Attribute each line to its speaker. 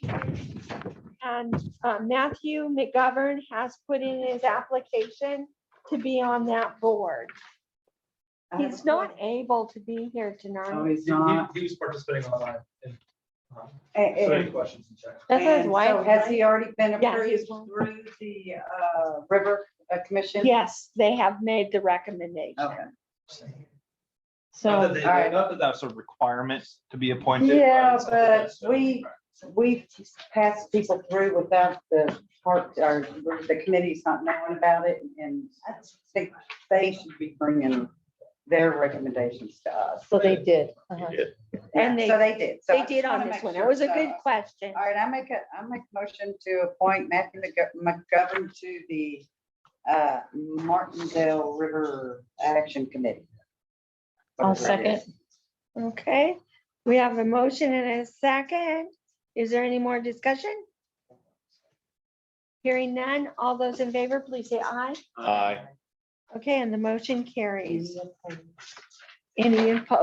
Speaker 1: and uh, Matthew McGovern has put in his application to be on that board.
Speaker 2: I have a
Speaker 1: He's not
Speaker 2: question.
Speaker 1: able to be here
Speaker 2: No,
Speaker 1: tonight.
Speaker 2: he's
Speaker 3: He-
Speaker 2: not.
Speaker 3: He he was participating online. and, um,
Speaker 2: And-
Speaker 3: So any
Speaker 2: and-
Speaker 3: questions and check.
Speaker 1: That's his
Speaker 2: and so
Speaker 1: wife.
Speaker 2: Has he already been
Speaker 1: Yeah,
Speaker 2: approved
Speaker 1: he's-
Speaker 2: through the uh, River uh, Commission?
Speaker 1: Yes, they have made the recommendation.
Speaker 2: Okay.
Speaker 4: Not
Speaker 1: So,
Speaker 4: that they-
Speaker 2: all right.
Speaker 4: Not that that's a requirement to be appointed.
Speaker 2: Yeah,
Speaker 4: it's something
Speaker 2: but
Speaker 4: that's, uh,
Speaker 2: we, we've passed people through without the part, or the committee's not knowing about it, and I just think they should be bringing their recommendations to us.
Speaker 1: so they did.
Speaker 3: You
Speaker 1: uh-huh.
Speaker 3: did.
Speaker 1: And
Speaker 2: Yeah,
Speaker 1: they-
Speaker 2: So they did. So
Speaker 1: They
Speaker 2: I
Speaker 1: did
Speaker 2: just wanna
Speaker 1: on this
Speaker 2: make
Speaker 1: one. It
Speaker 2: sure.
Speaker 1: was a
Speaker 2: So,
Speaker 1: good question.
Speaker 2: All right, I make a, I make a motion to appoint Matthew McGo- McGovern to the uh, Martindale River Action Committee.
Speaker 1: I'll
Speaker 2: Whatever it is.
Speaker 1: Okay, we have a motion and a second. Is there any more discussion? Hearing none, all those in favor, please say aye.
Speaker 4: Aye.
Speaker 1: Okay, and the motion carries. Any opposed?